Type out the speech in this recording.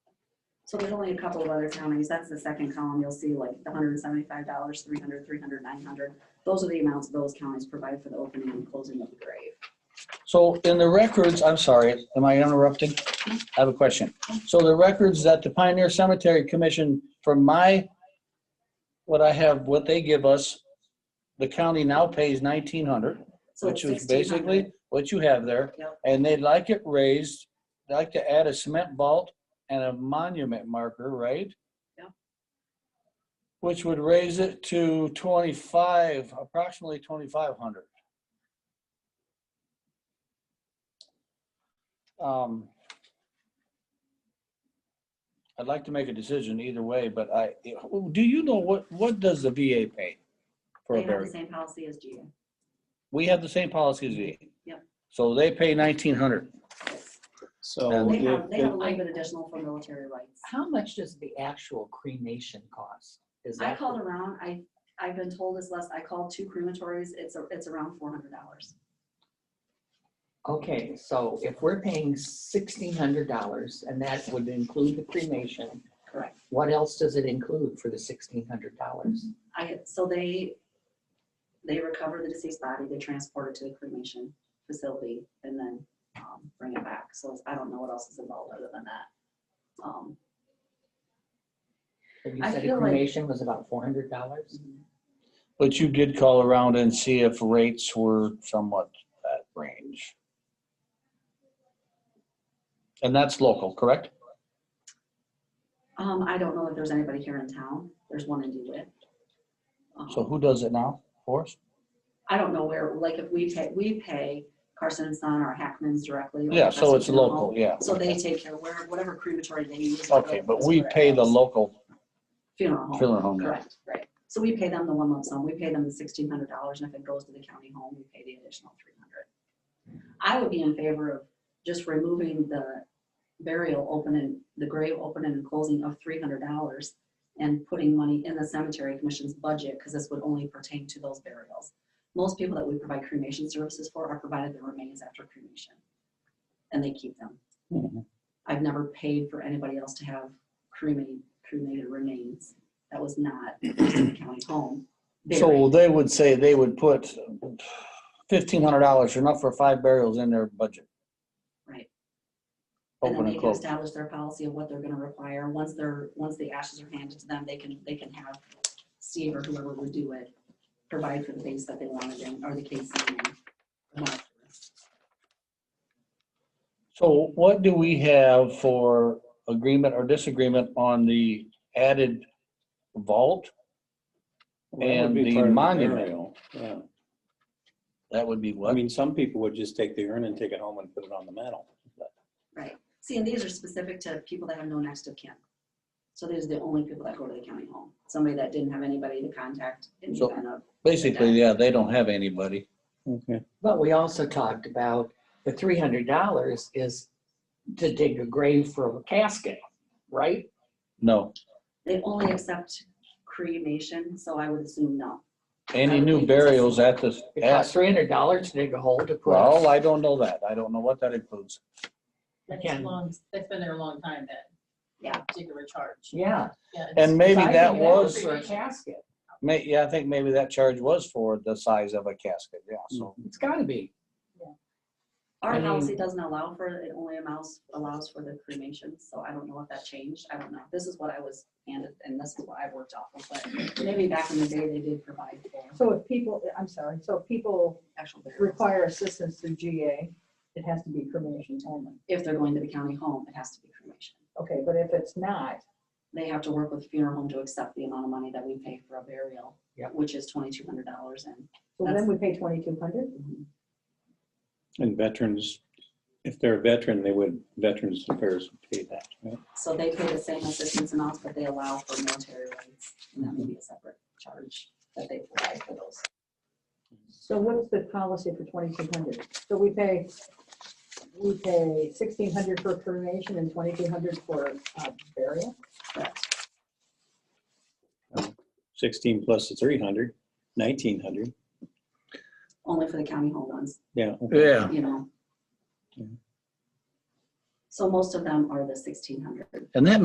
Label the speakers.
Speaker 1: So there's only a couple of other counties. That's the second column. You'll see like the hundred and seventy-five dollars, three hundred, three hundred, nine hundred. Those are the amounts those counties provide for the opening and closing of the grave.
Speaker 2: So in the records, I'm sorry, am I interrupting? I have a question. So the records that the Pioneer Cemetery Commission, from my, what I have, what they give us, the county now pays nineteen hundred,
Speaker 1: So
Speaker 2: which
Speaker 1: it's
Speaker 2: is basically
Speaker 1: 1,600.
Speaker 2: what you have there.
Speaker 1: Yep.
Speaker 2: And they'd like it raised, They'd like to add a cement vault and a monument marker, right?
Speaker 1: Yep.
Speaker 2: Which would raise it to twenty-five, approximately twenty-five hundred. Um, I'd like to make a decision either way, but I, do you know what, what does the VA pay for a
Speaker 1: They have the
Speaker 2: burial?
Speaker 1: same policy as GA.
Speaker 2: We have the same policy as VA.
Speaker 1: Yep.
Speaker 2: So they pay nineteen hundred.
Speaker 3: So
Speaker 2: And
Speaker 1: They
Speaker 3: if
Speaker 1: have, they have a
Speaker 3: the-
Speaker 1: little bit additional for military rights.
Speaker 4: How much does the actual cremation cost? Is
Speaker 1: I
Speaker 4: that
Speaker 1: called around, I, I've been told this less, I called two crematories, it's, a- it's around four hundred dollars.
Speaker 4: Okay, so if we're paying sixteen hundred dollars and that would include the cremation,
Speaker 1: Correct.
Speaker 4: what else does it include for the sixteen hundred dollars?
Speaker 1: I, so they, they recover the deceased body, they transport it to the cremation facility and then, um, bring it back. So I don't know what else is involved other than that. Um,
Speaker 4: You
Speaker 1: I
Speaker 4: said
Speaker 1: feel
Speaker 4: a
Speaker 1: like-
Speaker 4: cremation was about four hundred dollars?
Speaker 2: But you did call around and see if rates were somewhat that range. And that's local, correct?
Speaker 1: um, I don't know if there's anybody here in town, there's one in DeWitt. Um,
Speaker 2: So who does it now for us?
Speaker 1: I don't know where, like if we take, we pay Carson and Son or Hackman's directly. or
Speaker 2: Yeah, so it's
Speaker 1: Chesterton Hall.
Speaker 2: local, yeah.
Speaker 1: So they take care, where, whatever crematory they use.
Speaker 2: Okay, but we pay the
Speaker 1: local
Speaker 2: local
Speaker 1: Funeral home,
Speaker 2: funeral home. now.
Speaker 1: correct, right. So we pay them the one lump sum, we pay them the sixteen hundred dollars, and if it goes to the county home, we pay the additional three hundred. I would be in favor of just removing the burial opening, the grave opening and closing of three hundred dollars and putting money in the cemetery commission's budget, because this would only pertain to those burials. Most people that we provide cremation services for are provided their remains after cremation, and they keep them.
Speaker 2: Mhm.
Speaker 1: I've never paid for anybody else to have cremated, cremated remains. That was not the county home.
Speaker 2: So
Speaker 1: Buried.
Speaker 2: they would say they would put fifteen hundred dollars, enough for five burials in their budget.
Speaker 1: Right. And
Speaker 2: Open
Speaker 1: then they
Speaker 2: and
Speaker 1: can
Speaker 2: close.
Speaker 1: establish their policy of what they're gonna require. Once they're, once the ashes are handed to them, they can, they can have Steve or whoever would do it, provide for the base that they wanted in, or the case. in there.
Speaker 2: So what do we have for agreement or disagreement on the added vault?
Speaker 3: well, that would
Speaker 2: And
Speaker 3: be
Speaker 2: the
Speaker 3: part of the
Speaker 2: monument,
Speaker 3: burial, yeah.
Speaker 2: that would be
Speaker 3: I
Speaker 2: what?
Speaker 3: mean, some people would just take the urn and take it home and put it on the mantle.
Speaker 1: Right. See, and these are specific to people that have no next of kin. So these are the only people that go to the county home. Somebody that didn't have anybody to contact in the
Speaker 2: So-
Speaker 1: event of,
Speaker 2: Basically, yeah, they don't have anybody.
Speaker 3: Okay.
Speaker 4: But we also talked about the three hundred dollars is to dig a grave for a casket, right?
Speaker 2: No.
Speaker 1: they only accept cremation, so I would assume no.
Speaker 2: Any new burials at this,
Speaker 4: It costs
Speaker 2: at,
Speaker 4: three hundred dollars to dig a hole to put.
Speaker 2: well, I don't know that. I don't know what that includes.
Speaker 5: That's
Speaker 4: Again.
Speaker 5: long, that's been there a long time, that.
Speaker 1: Yeah.
Speaker 5: Particular charge.
Speaker 4: Yeah.
Speaker 5: Yeah, it's-
Speaker 2: And maybe
Speaker 4: So I
Speaker 2: that
Speaker 4: think
Speaker 2: was,
Speaker 4: For a casket.
Speaker 2: may, yeah, I think maybe that charge was for the size of a casket, yeah, so.
Speaker 4: It's gotta be. I
Speaker 1: Our
Speaker 4: mean-
Speaker 1: policy doesn't allow for, it only allows, allows for the cremation, so I don't know if that changed, I don't know. This is what I was handed, and this is what I worked off of, but maybe back in the day, they did provide for
Speaker 6: So if people, I'm sorry, so if people
Speaker 1: actual burials.
Speaker 6: require assistance through GA, it has to be cremation only.
Speaker 1: If they're going to the county home, it has to be cremation.
Speaker 6: Okay, but if it's not,
Speaker 1: They have to work with funeral home to accept the amount of money that we pay for a burial,
Speaker 4: Yeah.
Speaker 1: which is twenty-two hundred dollars and
Speaker 6: so then we pay twenty-two hundred?
Speaker 3: And veterans, if they're a veteran, they would, Veterans Affairs would pay that. right?
Speaker 1: So they pay the same assistance amounts, but they allow for military rights, and that may be a separate charge that they provide for those.
Speaker 6: So what's the policy for twenty-two hundred? So we pay, we pay sixteen hundred for cremation and twenty-two hundred for uh, burial?
Speaker 3: Sixteen plus the three hundred, nineteen hundred,
Speaker 1: Only for the county home ones,
Speaker 3: yeah.
Speaker 2: Yeah.
Speaker 1: you know?
Speaker 3: Yeah.
Speaker 1: So most of them are the sixteen hundred.
Speaker 2: And that